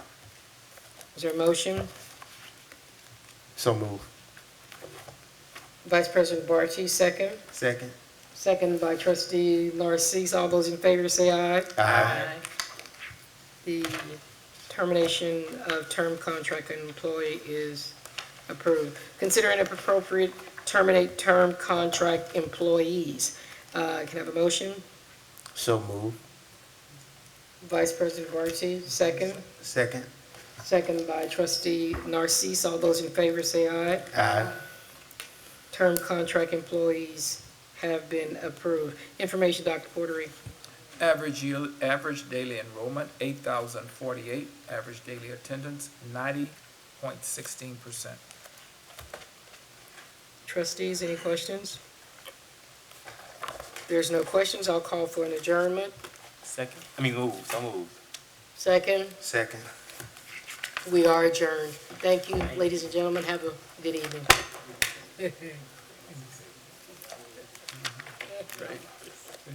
Is there a motion? So move. Vice President Barchi, second. Second. Second by trustee Narcisse. All those in favor say aye. Aye. The termination of term contract and employee is approved. Considering if appropriate, terminate term contract employees. Uh, Can I have a motion? So move. Vice President Barchi, second. Second. Second by trustee Narcisse. All those in favor say aye. Aye. Term contract employees have been approved. Information, Dr. Portery. Average year, average daily enrollment, eight thousand forty-eight, average daily attendance, ninety point sixteen percent. Trustees, any questions? There's no questions, I'll call for an adjournment. Second. I mean, move, so move. Second, Second. we are adjourned. Thank you, ladies and gentlemen, have a good evening.